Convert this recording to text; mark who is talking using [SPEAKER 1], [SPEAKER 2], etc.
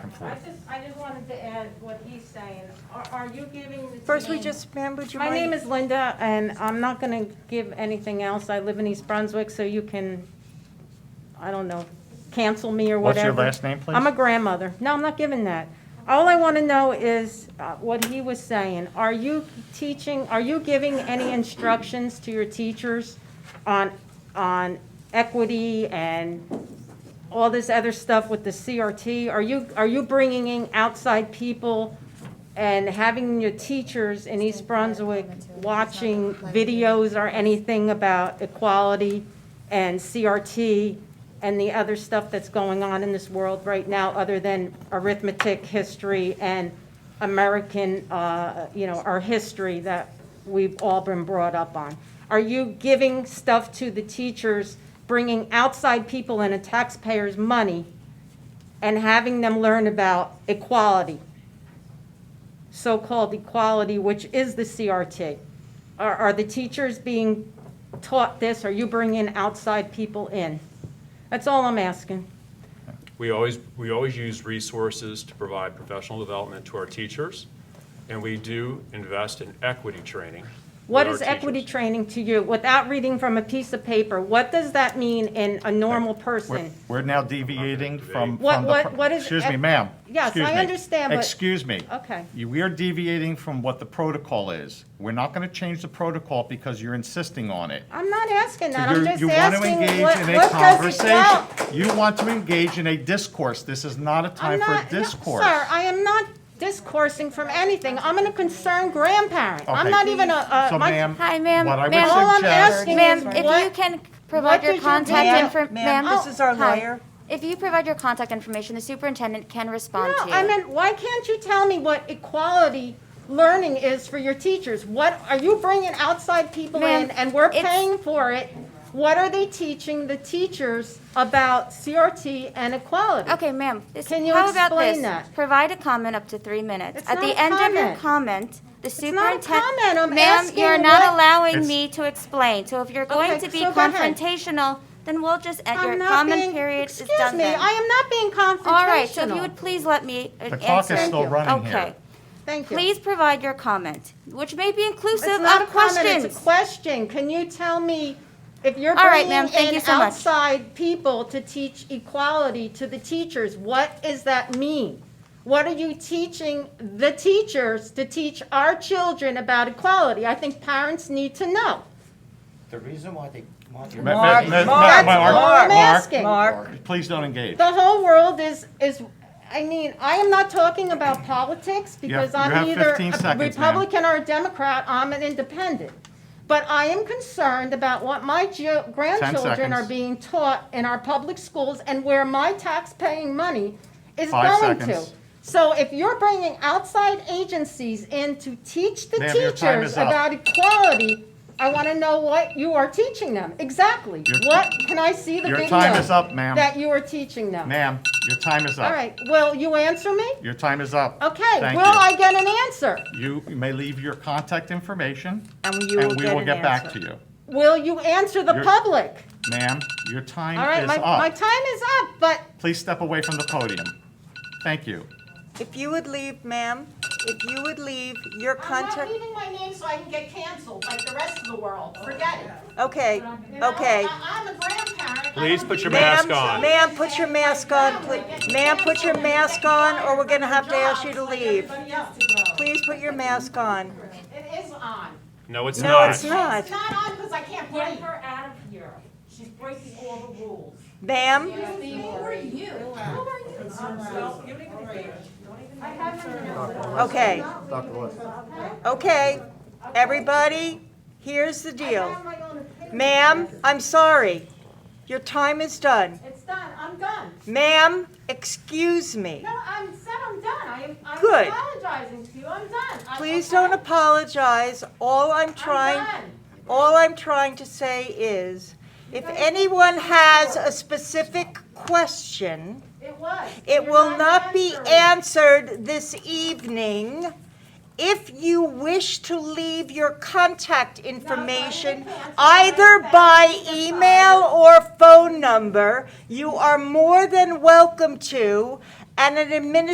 [SPEAKER 1] and
[SPEAKER 2] I
[SPEAKER 1] forth.
[SPEAKER 3] just, I just wanted to add what he's saying. Are, are you giving the
[SPEAKER 1] First, we
[SPEAKER 3] team-
[SPEAKER 1] just, ma'am, would you
[SPEAKER 3] My
[SPEAKER 1] mind?
[SPEAKER 3] name is Linda, and I'm not gonna give anything else. I live in East Brunswick, so you can, I don't know, cancel me or
[SPEAKER 1] What's your
[SPEAKER 3] whatever.
[SPEAKER 1] last name, please?
[SPEAKER 3] I'm a grandmother. No, I'm not giving that. All I wanna know is uh, what he was saying. Are you teaching, are you giving any instructions to your teachers on, on equity and all this other stuff with the CRT? Are you, are you bringing in outside people and having your teachers in East Brunswick watching videos or anything about equality and CRT and the other stuff that's going on in this world right now, other than arithmetic, history, and American, uh, you know, our history that we've all been brought up on? Are you giving stuff to the teachers, bringing outside people and a taxpayer's money and having them learn about equality? so-called equality, which is the CRT. Are, are the teachers being taught this? Are you bringing outside people in? That's all I'm asking.
[SPEAKER 4] We always, we always use resources to provide professional development to our teachers, and we do invest in equity training.
[SPEAKER 3] What is
[SPEAKER 4] with our
[SPEAKER 3] equity
[SPEAKER 4] teachers.
[SPEAKER 3] training to you? Without reading from a piece of paper, what does that mean in a normal
[SPEAKER 1] We're-
[SPEAKER 3] person?
[SPEAKER 1] We're now deviating from,
[SPEAKER 3] What-
[SPEAKER 1] from the,
[SPEAKER 3] what-
[SPEAKER 1] pro-
[SPEAKER 3] what is-
[SPEAKER 1] excuse me, ma'am.
[SPEAKER 3] Yes,
[SPEAKER 1] Excuse
[SPEAKER 3] I
[SPEAKER 1] me.
[SPEAKER 3] understand, but-
[SPEAKER 1] Excuse me.
[SPEAKER 3] Okay.
[SPEAKER 1] You- We are deviating from what the protocol is. We're not going to change the protocol because you're insisting on it.
[SPEAKER 3] I'm not asking that,
[SPEAKER 1] You-
[SPEAKER 3] I'm just
[SPEAKER 1] you want to
[SPEAKER 3] asking
[SPEAKER 1] engage
[SPEAKER 3] what,
[SPEAKER 1] in a
[SPEAKER 3] what does it count?
[SPEAKER 1] conversation. You want to engage in a discourse. This is not a
[SPEAKER 3] I'm
[SPEAKER 1] time for a
[SPEAKER 3] not- no,
[SPEAKER 1] discourse.
[SPEAKER 3] Sir, I am not discoursing from anything. I'm a concerned grandparent. I'm
[SPEAKER 1] Okay.
[SPEAKER 3] not even a,
[SPEAKER 1] So
[SPEAKER 3] a, my,
[SPEAKER 1] ma'am,
[SPEAKER 5] Hi, ma'am.
[SPEAKER 1] what I would
[SPEAKER 5] Ma'am.
[SPEAKER 3] all I'm
[SPEAKER 1] suggest-
[SPEAKER 3] asking
[SPEAKER 5] Ma'am,
[SPEAKER 3] is
[SPEAKER 5] if
[SPEAKER 3] what-
[SPEAKER 5] you can
[SPEAKER 3] what
[SPEAKER 5] provide
[SPEAKER 3] did
[SPEAKER 5] your
[SPEAKER 3] you
[SPEAKER 5] contact
[SPEAKER 3] Ma'am,
[SPEAKER 5] information.
[SPEAKER 6] ma'am, this is our lawyer.
[SPEAKER 5] If you provide your contact information, the superintendent can respond
[SPEAKER 3] No,
[SPEAKER 5] to you.
[SPEAKER 3] I mean, why can't you tell me what equality learning is for your teachers? What, are you bringing outside people
[SPEAKER 5] Ma'am,
[SPEAKER 3] in and we're
[SPEAKER 5] it's-
[SPEAKER 3] paying for it? What are they teaching the teachers about CRT and equality?
[SPEAKER 5] Okay, ma'am, this,
[SPEAKER 3] Can you
[SPEAKER 5] how about
[SPEAKER 3] explain
[SPEAKER 5] this?
[SPEAKER 3] that?
[SPEAKER 5] Provide a comment up to three minutes.
[SPEAKER 3] It's
[SPEAKER 5] At
[SPEAKER 3] not
[SPEAKER 5] the
[SPEAKER 3] a
[SPEAKER 5] end of your
[SPEAKER 3] comment.
[SPEAKER 5] comment, the
[SPEAKER 3] not a
[SPEAKER 5] superintendent.
[SPEAKER 3] comment. I'm
[SPEAKER 5] Ma'am,
[SPEAKER 3] asking
[SPEAKER 5] you're not
[SPEAKER 3] what-
[SPEAKER 5] allowing
[SPEAKER 1] It's-
[SPEAKER 5] me to explain. So if you're going
[SPEAKER 3] Okay,
[SPEAKER 5] to be
[SPEAKER 3] so go ahead.
[SPEAKER 5] confrontational, then we'll just end
[SPEAKER 3] I'm
[SPEAKER 5] your
[SPEAKER 3] not
[SPEAKER 5] comment
[SPEAKER 3] being-
[SPEAKER 5] period is
[SPEAKER 3] Excuse
[SPEAKER 5] done
[SPEAKER 3] me,
[SPEAKER 5] then.
[SPEAKER 3] I am not being confrontational.
[SPEAKER 5] All right, so if you would please let me uh,
[SPEAKER 1] The
[SPEAKER 5] answer.
[SPEAKER 1] clock is still
[SPEAKER 3] you.
[SPEAKER 1] running here.
[SPEAKER 5] Okay.
[SPEAKER 3] Thank you.
[SPEAKER 5] Please provide your comment, which may be inclusive
[SPEAKER 3] It's not a
[SPEAKER 5] of
[SPEAKER 3] comment, it's a
[SPEAKER 5] questions.
[SPEAKER 3] question. Can you tell me if you're
[SPEAKER 5] All right,
[SPEAKER 3] bringing
[SPEAKER 5] ma'am, thank
[SPEAKER 3] in
[SPEAKER 5] you so much.
[SPEAKER 3] outside people to teach equality to the teachers, what does that mean? What are you teaching the teachers to teach our children about equality? I think parents need to know.
[SPEAKER 7] The reason why they want your.
[SPEAKER 1] Ma- ma-
[SPEAKER 6] Mark,
[SPEAKER 1] ma- ma-
[SPEAKER 6] Mark,
[SPEAKER 3] That's
[SPEAKER 1] ma-
[SPEAKER 3] all
[SPEAKER 1] Mark,
[SPEAKER 3] I'm
[SPEAKER 1] Mark,
[SPEAKER 3] asking.
[SPEAKER 6] Mark,
[SPEAKER 1] Please don't engage.
[SPEAKER 3] The whole world is, is, I mean, I am not talking about politics because
[SPEAKER 1] you have
[SPEAKER 3] I'm either
[SPEAKER 1] 15
[SPEAKER 3] a
[SPEAKER 1] seconds, ma'am.
[SPEAKER 3] Republican or a Democrat, I'm an independent. But I am concerned about what my ge- grandchildren
[SPEAKER 1] seconds.
[SPEAKER 3] are being taught in our public schools and where my tax-paying money is
[SPEAKER 1] Five
[SPEAKER 3] going to.
[SPEAKER 1] seconds.
[SPEAKER 3] So if you're bringing outside agencies in to teach the
[SPEAKER 1] Ma'am, your time
[SPEAKER 3] teachers
[SPEAKER 1] is up.
[SPEAKER 3] about equality, I want to know what you are teaching them, exactly.
[SPEAKER 1] Your-
[SPEAKER 3] What, can I see the
[SPEAKER 1] Your
[SPEAKER 3] video?
[SPEAKER 1] time is up, ma'am.
[SPEAKER 3] That you are teaching them?
[SPEAKER 1] Ma'am, your time is up.
[SPEAKER 3] All right, will you answer me?
[SPEAKER 1] Your time is up.
[SPEAKER 3] Okay,
[SPEAKER 1] Thank
[SPEAKER 3] will
[SPEAKER 1] you.
[SPEAKER 3] I get an answer?
[SPEAKER 1] You may leave your contact information,
[SPEAKER 6] and you will
[SPEAKER 1] and we
[SPEAKER 6] get
[SPEAKER 1] will
[SPEAKER 6] an
[SPEAKER 1] get
[SPEAKER 6] answer.
[SPEAKER 1] back to you.
[SPEAKER 3] Will you answer the
[SPEAKER 1] You're-
[SPEAKER 3] public?
[SPEAKER 1] Ma'am, your time
[SPEAKER 3] All right,
[SPEAKER 1] is
[SPEAKER 3] my, my
[SPEAKER 1] up.
[SPEAKER 3] time is up, but
[SPEAKER 1] Please step away from the podium. Thank you.
[SPEAKER 6] If you would leave, ma'am, if you would leave your
[SPEAKER 3] I'm not
[SPEAKER 6] contact,
[SPEAKER 3] leaving my name so I can get canceled like the rest of the world, forget it.
[SPEAKER 6] okay,
[SPEAKER 3] You know,
[SPEAKER 6] okay.
[SPEAKER 3] I- I'm a grandparent. I
[SPEAKER 4] Please
[SPEAKER 3] don't
[SPEAKER 4] put
[SPEAKER 3] do
[SPEAKER 4] your
[SPEAKER 3] that.
[SPEAKER 4] mask
[SPEAKER 6] Ma'am,
[SPEAKER 4] on.
[SPEAKER 6] Ma'am, put your mask on, please. Ma'am, put your mask on, or we're gonna have to ask you to leave.
[SPEAKER 3] Everybody else to go.
[SPEAKER 6] Please put your mask on.
[SPEAKER 3] It is on.
[SPEAKER 4] No, it's
[SPEAKER 6] No,
[SPEAKER 4] not.
[SPEAKER 6] it's not.
[SPEAKER 3] It's not on because I can't break her.
[SPEAKER 8] out of here. She's breaking all the rules.
[SPEAKER 6] Ma'am,
[SPEAKER 3] I haven't been
[SPEAKER 6] okay. Okay, everybody, here's the
[SPEAKER 3] on
[SPEAKER 6] deal.
[SPEAKER 3] my own opinion.
[SPEAKER 6] Ma'am, I'm sorry. Your time is done.
[SPEAKER 3] It's done, I'm done.
[SPEAKER 6] Ma'am, excuse me.
[SPEAKER 3] No, I'm said I'm done. I am, I'm
[SPEAKER 6] Good.
[SPEAKER 3] apologizing to you. I'm done. I'm-
[SPEAKER 6] Please don't
[SPEAKER 3] I'm
[SPEAKER 6] apologize. All I'm trying,
[SPEAKER 3] done.
[SPEAKER 6] all I'm trying to say is, if anyone has a specific question,
[SPEAKER 3] It was.
[SPEAKER 6] it
[SPEAKER 3] You're
[SPEAKER 6] will not be
[SPEAKER 3] answering.
[SPEAKER 6] answered this evening. If you wish to leave your contact information, either by email or phone number, you are more than welcome to, and an administrator